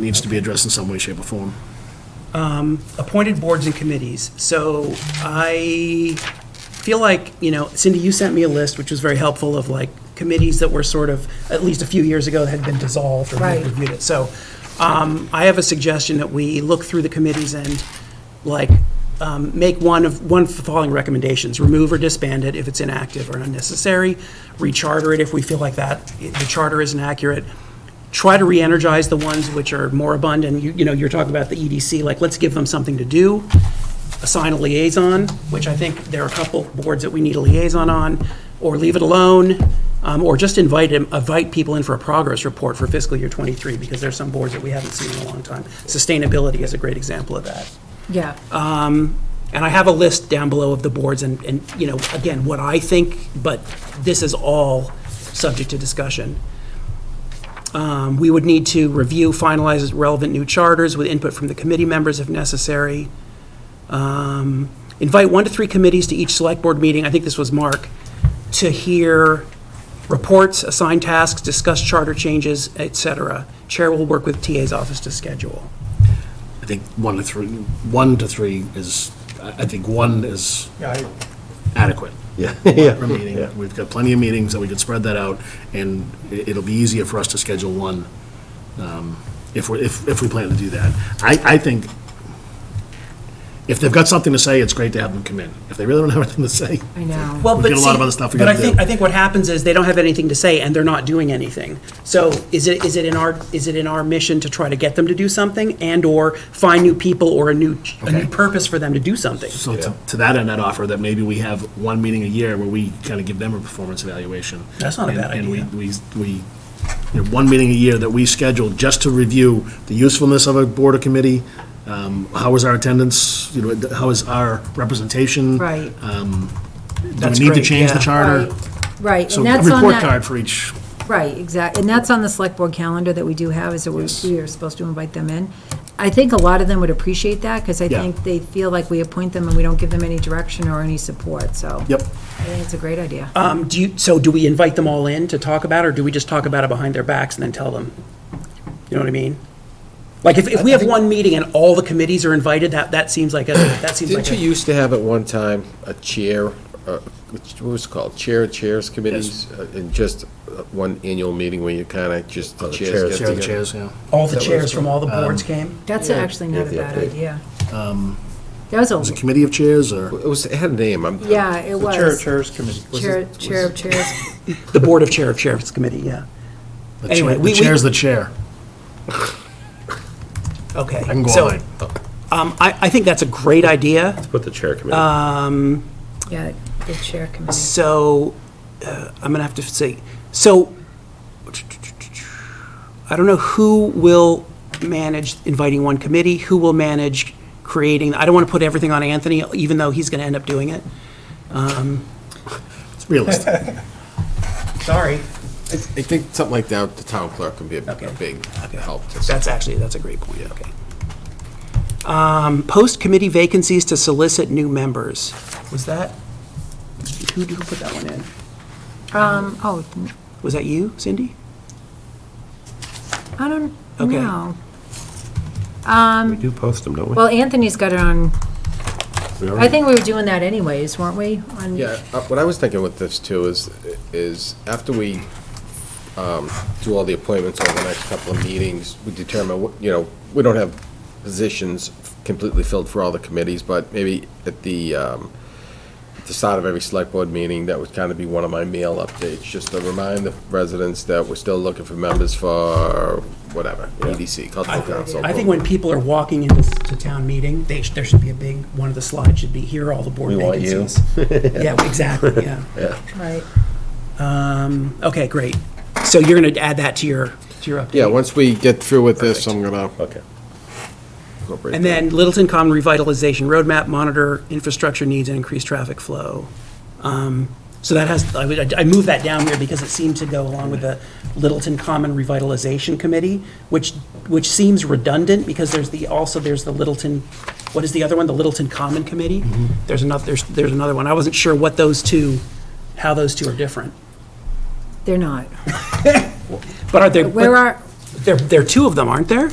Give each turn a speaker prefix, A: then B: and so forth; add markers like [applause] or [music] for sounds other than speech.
A: needs to be addressed in some way, shape, or form.
B: appointed boards and committees. So I feel like, you know, Cindy, you sent me a list, which was very helpful, of like committees that were sort of, at least a few years ago, had been dissolved or we
C: Right.
B: reviewed it. So um, I have a suggestion that we look through the committees and like um, make one of, one of the following recommendations. Remove or disband it if it's inactive or unnecessary. Recharter it if we feel like that, i- the charter isn't accurate. Try to re-energize the ones which are moribund and you, you know, you're talking about the EDC, like let's give them something to do assign a liaison, which I think there are a couple boards that we need a liaison on, or leave it alone, um, or just invite, him- invite people in for a progress report for fiscal year '23, because there's some boards that we haven't seen in a long time. Sustainability is a great example of that.
C: Yeah.
B: And I have a list down below of the boards and, and, you know, again, what I think, but this is all subject to discussion. Um, We would need to review, finalize relevant new charters with input from the committee members if necessary. Um, Invite one to three committees to each select board meeting, I think this was Mark, to hear reports, assign tasks, discuss charter changes, et cetera. Chair will work with TA's office to schedule.
A: I think one to three, one to three is, I I think one is adequate. [laughs] Yeah. Per meeting, we've got plenty of meetings that we could spread that out, and i- it'll be easier for us to schedule one um, if we're, if, if we plan to do that. I, I think, if they've got something to say, it's great to have them come in. If they really don't have anything to say,
C: I know.
B: Well,
A: We've
B: but
A: got a lot of
B: see-
A: other stuff we
B: but
A: gotta
B: I think-
A: do.
B: I think what happens is they don't have anything to say and they're not doing anything. So is it, is it in our, is it in our mission to try to get them to do something and/or find new people or a new, a new
A: Okay.
B: purpose for them to do something?
A: So to to that end, I'd offer that maybe we have one meeting a year where we kind of give them a performance evaluation.
B: That's not a
A: And-
B: bad idea.
A: And we, we, we, you know, one meeting a year that we schedule just to review the usefulness of a board or committee, um, how is our attendance, you know, how is our representation? um,
C: Right.
A: Do
B: That's
A: we need to
B: great,
A: change the
B: yeah.
A: charter?
C: Right,
A: So
C: and
A: a
C: that's on
A: report
C: that,
A: card for each,
C: right, exactly, and that's on the select board calendar that we do have, is that we we are supposed to invite them in. I think a lot of them would appreciate that, because I
A: Yeah.
C: think they feel like we appoint them and we don't give them any direction or any support, so.
A: yep.
C: I think it's a great idea.
D: Uh,
B: Um, do you, so do we invite them all in to talk about it or do we just talk about it behind their backs and then tell them? You know what I mean? Like if, if we have one meeting and all the committees are invited, that, that seems like a, that seems like
D: Didn't you
B: a.
D: used to have at one time a chair, uh, which- what was it called, chair, of chairs committees? uh, And just uh, one annual meeting where you kind of just Oh, the chairs get
A: Chair of the
D: together?
A: chairs, yeah.
B: All the chairs from all the
A: um,
B: boards came?
C: That's actually not a
D: Yeah,
C: bad
D: yeah.
C: idea. That was
A: Is it
C: a,
A: committee of chairs or?
D: It was, it had a name, I'm.
C: yeah, it was.
E: Chair, Chairs Committee.
C: Chair, chair of chairs,
B: The Board of Chair of Sheriff's Committee, yeah.
A: the
B: Anyway,
A: chair-
B: we-
A: The
B: we-
A: chair's the chair.
B: Okay.
A: I can go
B: So,
A: all night.
B: Um, I, I think that's a great idea.
D: Put the chair committee.
C: yeah, the chair committee.
B: So, uh, I'm gonna have to say, so, I don't know who will manage inviting one committee, who will manage creating, I don't want to put everything on Anthony, even though he's gonna end up doing it.
A: It's realistic.
B: Sorry.
D: I I think something like that, the town clerk can be a
B: Okay.
D: a big help. to-
B: That's actually, that's a great point, okay. Um, post committee vacancies to solicit new members. Was that, who, who put that one in?
C: Um, oh,
B: Was that you, Cindy?
C: I don't
B: Okay.
C: know.
F: We do post them, don't we?
C: Well, Anthony's got it on,
F: We
C: I
F: already-
C: think we were doing that anyways, weren't we? On-
D: Yeah, uh, what I was thinking with this too is, is after we um, do all the appointments over the next couple of meetings, we determine, what- you know, we don't have positions completely filled for all the committees, but maybe at the, um, at the start of every select board meeting, that would kind of be one of my mail updates, just to remind the residents that we're still looking for members for whatever, EDC, cultural council.
B: I think when people are walking into s- to town meeting, they, sh- there should be a big, one of the slides should be, here are all the board
D: We want you."
B: vacancies.
D: [laughs]
B: Yeah, exactly, yeah.
C: Right.
B: Um, Okay, great. So you're going to add that to your, to your update?
D: Yeah, once we get through with this, I'm gonna. Okay.
B: And then Littleton Common Revitalization Roadmap, monitor infrastructure needs and increase traffic flow. Um, So that has, I would- I moved that down here because it seemed to go along with the Littleton Common Revitalization Committee, which, which seems redundant because there's the, also there's the Littleton, what is the other one? The Littleton Common Committee? There's another, there's, there's another one. I wasn't sure what those two, how those two are different.
C: They're not.
B: But are there,
C: Where
B: but
C: are,
B: there, there are two of them, aren't there?